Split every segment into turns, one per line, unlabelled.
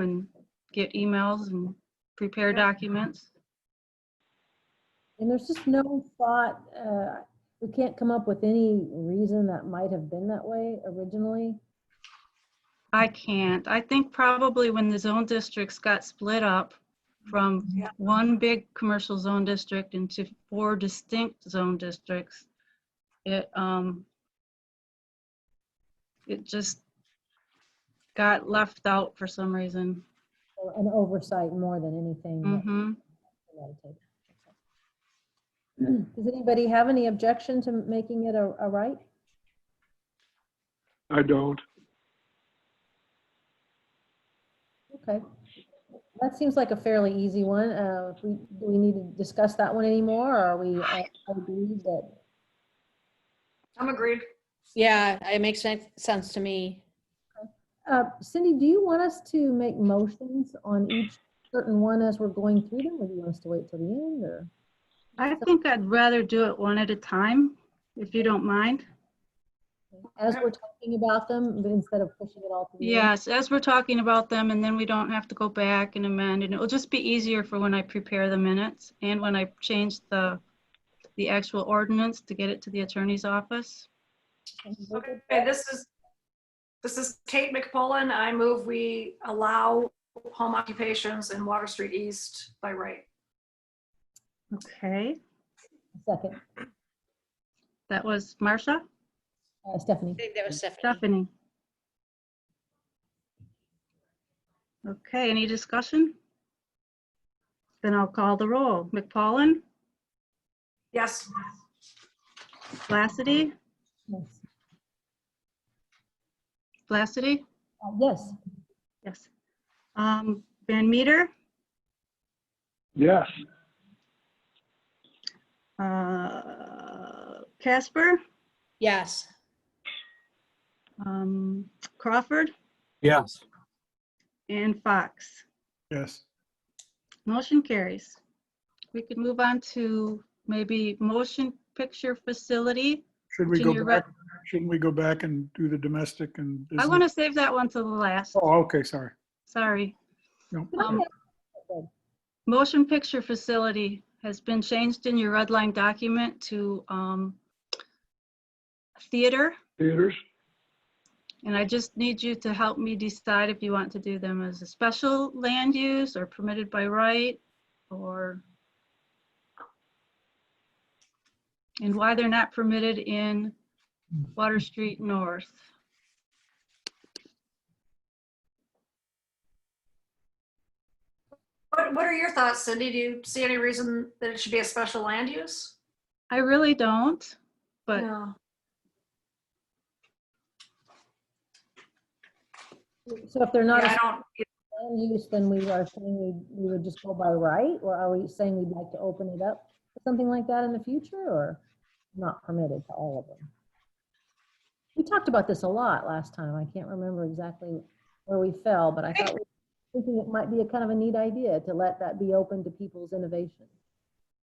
and get emails and prepare documents.
And there's just no thought, uh, we can't come up with any reason that might have been that way originally.
I can't. I think probably when the zone districts got split up from
Yeah.
one big commercial zone district into four distinct zone districts, it, um, it just got left out for some reason.
or An oversight more than anything. that
hmm
premeditated. Does anybody have any objection to making it a, a right?
I don't.
Okay. That seems like a fairly easy one. Uh, if we, do we need to discuss that one anymore, or are we, uh, I I believe that,
I'm agreed.
Yeah, it makes sen- sense to me.
uh, Cindy, do you want us to make motions on each certain one as we're going through them, or do you want us to wait till the end, or?
I think I'd rather do it one at a time, if you don't mind.
As we're talking about them, but instead of pushing it all to the end?
Yes, as we're talking about them, and then we don't have to go back and amend, and it'll just be easier for when I prepare the minutes and when I change the, the actual ordinance to get it to the attorney's office.
Okay, this is, this is Kate McPullen. I move we allow home occupations in Water Street East by right.
Okay.
Second,
That was Marcia,
Uh, Stephanie.
I think that was Stephanie.
Stephanie. Okay, any discussion? Then I'll call the roll. McPollin,
Yes,
Lassity,
Yes.
Lassity,
Uh, Yes,
yes. Um, Van Meter,
Yes,
uh, Casper?
Yes,
um, Crawford
Yes.
and Fox.
yes.
Motion carries. We could move on to maybe motion picture facility.
Should we
Junior
go
rep-
back, shouldn't we go back and do the domestic
I
and? business?
want to save that one to the last,
Mhm. Oh, okay, sorry.
sorry.
No.
Um, Motion picture facility has been changed in your red line document to um, theater.
Theaters,
And I just need you to help me decide if you want to do them as a special land use or permitted by right or and why they're not permitted in Water Street North.
what, what are your thoughts, Cindy? Do you see any reason that it should be a special land use?
I really don't, but
No.
so if they're
Yeah,
not
I
a
don't,
land use, then we are saying we, we would just go by right? Or are we saying we'd like to open it up for something like that in the future, or not permitted to all of them? We talked about this a lot last time. I can't remember exactly where we fell, but I thought, we were thinking it might be a kind of a neat idea to let that be open to people's innovation.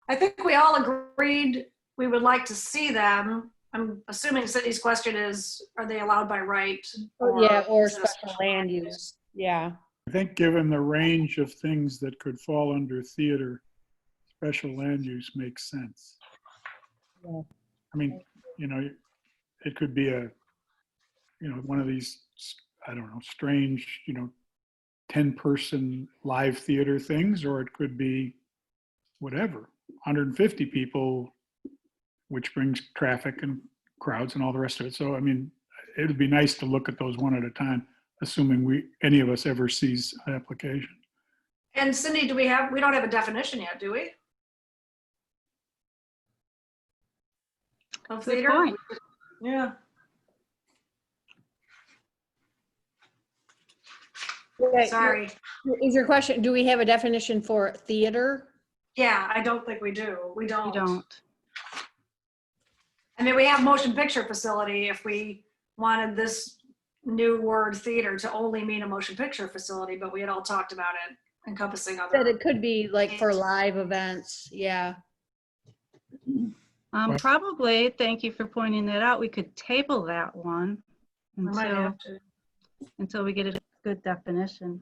I think we all agreed we would like to see them. I'm assuming Cindy's question is, are they allowed by right?
Oh, yeah, or
just-
special land use, yeah.
I think given the range of things that could fall under theater, special land use makes sense.
Yeah.
I mean, you know, it could be a, you know, one of these, I don't know, strange, you know, 10-person live theater things, or it could be whatever, 150 people, which brings traffic and crowds and all the rest of it. So, I mean, it'd be nice to look at those one at a time, assuming we, any of us ever sees an application.
And Cindy, do we have, we don't have a definition yet, do we? Of
good
theater?
point.
Yeah.
Right,
Sorry.
Is your question, do we have a definition for theater?
Yeah, I don't think we do. We
You
don't.
don't.
I mean, we have motion picture facility if we wanted this new word theater to only mean a motion picture facility, but we had all talked about it encompassing
That
other.
it could be like for live events, yeah.
Um,
Right.
probably, thank you for pointing that out. We could table that one
We might
until,
have to.
until we get a good definition.